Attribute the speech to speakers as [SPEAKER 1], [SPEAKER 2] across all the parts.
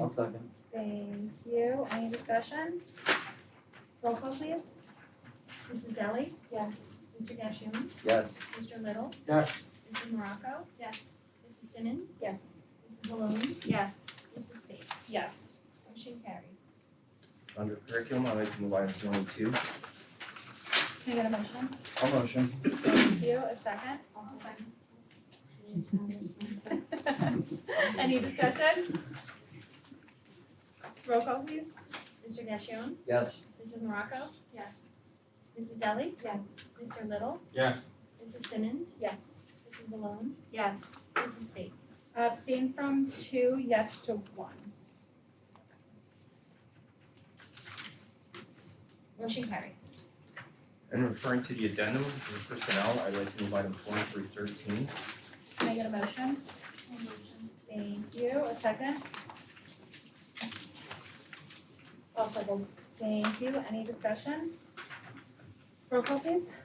[SPEAKER 1] I'll second.
[SPEAKER 2] Thank you. Any discussion? Roll call please.
[SPEAKER 3] Mrs. Deli?
[SPEAKER 2] Yes.
[SPEAKER 3] Mr. Gashion?
[SPEAKER 1] Yes.
[SPEAKER 3] Mr. Little?
[SPEAKER 1] Yes.
[SPEAKER 3] Mrs. Morocco?
[SPEAKER 2] Yes.
[SPEAKER 3] Mrs. Simmons?
[SPEAKER 2] Yes.
[SPEAKER 3] Mrs. Maloney?
[SPEAKER 2] Yes.
[SPEAKER 3] Mrs. Space?
[SPEAKER 2] Yes.
[SPEAKER 3] Motion carries.
[SPEAKER 4] Under curriculum, I'd like to move item twenty-two.
[SPEAKER 2] Can I get a motion?
[SPEAKER 4] I'll motion.
[SPEAKER 2] Thank you. A second?
[SPEAKER 3] Also second.
[SPEAKER 2] Any discussion? Roll call please.
[SPEAKER 3] Mr. Gashion?
[SPEAKER 1] Yes.
[SPEAKER 3] Mrs. Morocco?
[SPEAKER 2] Yes.
[SPEAKER 3] Mrs. Deli?
[SPEAKER 2] Yes.
[SPEAKER 3] Mr. Little?
[SPEAKER 4] Yes.
[SPEAKER 3] Mrs. Simmons?
[SPEAKER 2] Yes.
[SPEAKER 3] Mrs. Maloney?
[SPEAKER 2] Yes.
[SPEAKER 3] Mrs. Space?
[SPEAKER 2] Abstain from two, yes to one.
[SPEAKER 3] Motion carries.
[SPEAKER 4] And referring to the addendum for personnel, I'd like to move item twenty through thirteen.
[SPEAKER 2] Can I get a motion?
[SPEAKER 3] motion.
[SPEAKER 2] Thank you. A second? I'll second. Thank you. Any discussion? Roll call please.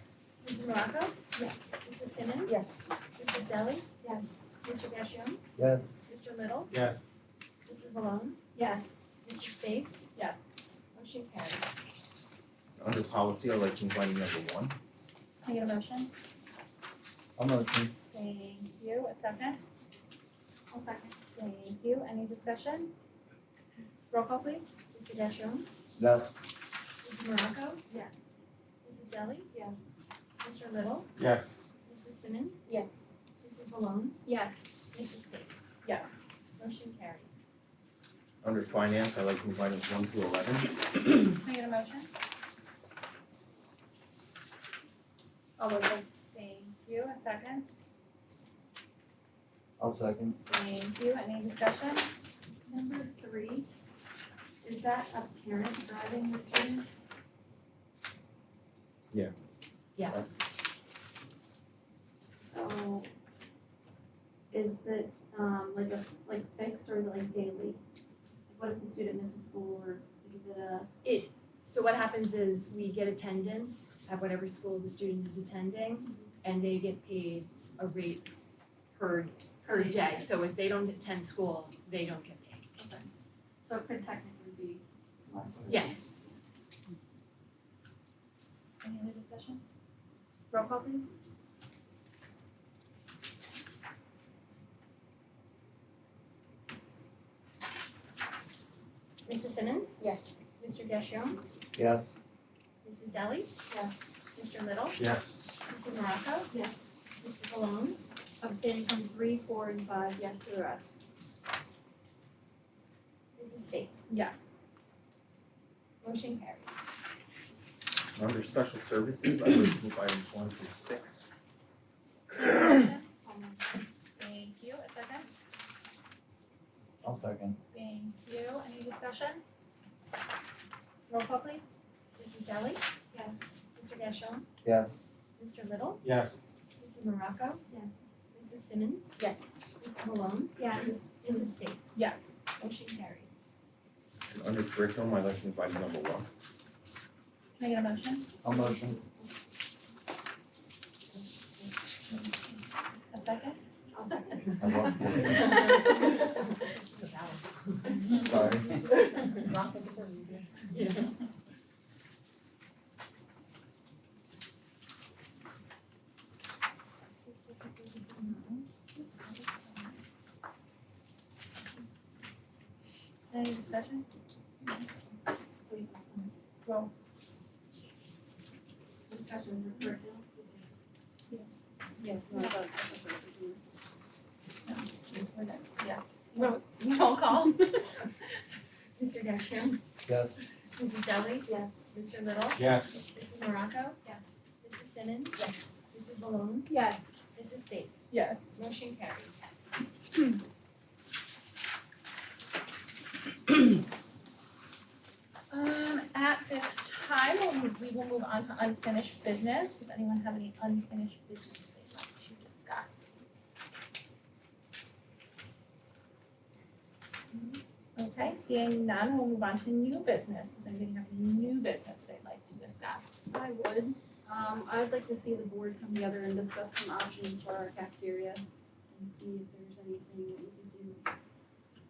[SPEAKER 3] Mrs. Morocco?
[SPEAKER 2] Yes.
[SPEAKER 3] Mrs. Simmons?
[SPEAKER 2] Yes.
[SPEAKER 3] Mrs. Deli?
[SPEAKER 2] Yes.
[SPEAKER 3] Mr. Gashion?
[SPEAKER 1] Yes.
[SPEAKER 3] Mr. Little?
[SPEAKER 4] Yes.
[SPEAKER 3] Mrs. Malone?
[SPEAKER 2] Yes.
[SPEAKER 3] Mrs. Space?
[SPEAKER 2] Yes.
[SPEAKER 3] Motion carries.
[SPEAKER 4] Under policy, I'd like to move item number one.
[SPEAKER 2] Can I get a motion?
[SPEAKER 1] I'll motion.
[SPEAKER 2] Thank you. A second?
[SPEAKER 3] I'll second.
[SPEAKER 2] Thank you. Any discussion? Roll call please.
[SPEAKER 3] Mr. Gashion?
[SPEAKER 1] Yes.
[SPEAKER 3] Mrs. Morocco?
[SPEAKER 2] Yes.
[SPEAKER 3] Mrs. Deli?
[SPEAKER 2] Yes.
[SPEAKER 3] Mr. Little?
[SPEAKER 4] Yes.
[SPEAKER 3] Mrs. Simmons?
[SPEAKER 2] Yes.
[SPEAKER 3] Mrs. Malone?
[SPEAKER 2] Yes.
[SPEAKER 3] Mrs. Space?
[SPEAKER 2] Yes.
[SPEAKER 3] Motion carries.
[SPEAKER 4] Under finance, I'd like to move items one through eleven.
[SPEAKER 2] Can I get a motion? I'll motion. Thank you. A second?
[SPEAKER 1] I'll second.
[SPEAKER 2] Thank you. Any discussion?
[SPEAKER 5] Number three, is that a parent driving the student?
[SPEAKER 4] Yeah.
[SPEAKER 2] Yes.
[SPEAKER 5] So is it um like a like fixed or is it like daily? Like What if the student misses school or is it a,
[SPEAKER 6] So what happens is we get attendance at whatever school the student is attending, and they get paid a rate per, per day. So if they don't attend school, they don't get paid.
[SPEAKER 5] so it could technically be less than?
[SPEAKER 6] Yes.
[SPEAKER 2] Any other discussion? Roll call please.
[SPEAKER 3] Mrs. Simmons?
[SPEAKER 2] Yes.
[SPEAKER 3] Mr. Gashion?
[SPEAKER 1] Yes.
[SPEAKER 3] Mrs. Deli?
[SPEAKER 5] Yes.
[SPEAKER 3] Mr. Little?
[SPEAKER 4] Yes.
[SPEAKER 3] Mrs. Morocco?
[SPEAKER 5] Yes,
[SPEAKER 3] Mrs. Malone?
[SPEAKER 5] abstaining from three, four and five, yes to the rest.
[SPEAKER 3] Mrs. Space?
[SPEAKER 2] Yes.
[SPEAKER 3] Motion carries.
[SPEAKER 4] Under special services, I'd like to move items one through six.
[SPEAKER 2] Motion.
[SPEAKER 5] Um,
[SPEAKER 2] Thank you. A second?
[SPEAKER 1] I'll second.
[SPEAKER 2] Thank you. Any discussion? Roll call please.
[SPEAKER 3] Mrs. Deli?
[SPEAKER 5] Yes,
[SPEAKER 3] Mr. Gashion?
[SPEAKER 1] Yes.
[SPEAKER 3] Mr. Little?
[SPEAKER 4] Yes.
[SPEAKER 3] Mrs. Morocco?
[SPEAKER 5] yes,
[SPEAKER 3] Mrs. Simmons?
[SPEAKER 2] Yes.
[SPEAKER 3] Mrs. Malone?
[SPEAKER 5] yes,
[SPEAKER 3] Mrs. Space?
[SPEAKER 2] Yes.
[SPEAKER 3] Motion carries.
[SPEAKER 4] And under curriculum, I'd like to move item number one.
[SPEAKER 2] Can I get a motion?
[SPEAKER 1] I'll motion.
[SPEAKER 2] A second?
[SPEAKER 5] I'll second.
[SPEAKER 1] I love you. Sorry.
[SPEAKER 2] Any discussion? Roll.
[SPEAKER 5] Discussions of curriculum?
[SPEAKER 2] Yes.
[SPEAKER 5] What about special services?
[SPEAKER 2] Roll, roll call?
[SPEAKER 3] Mr. Gashion?
[SPEAKER 1] Yes.
[SPEAKER 3] Mrs. Deli?
[SPEAKER 5] Yes.
[SPEAKER 3] Mr. Little?
[SPEAKER 4] Yes.
[SPEAKER 3] Mrs. Morocco?
[SPEAKER 5] Yes.
[SPEAKER 3] Mrs. Simmons? Yes. Mrs. Malone?
[SPEAKER 5] Yes.
[SPEAKER 3] Mrs. Space?
[SPEAKER 2] Yes.
[SPEAKER 3] Motion carries.
[SPEAKER 2] Um, at this time, we'll move- we will move on to unfinished business. Does anyone have any unfinished business they'd like to discuss? Okay, seeing none, we'll move on to new business. Does anybody have any new business they'd like to discuss?
[SPEAKER 5] I would. Um, I would like to see the board come together and discuss some options for our cafeteria and see if there's anything that we can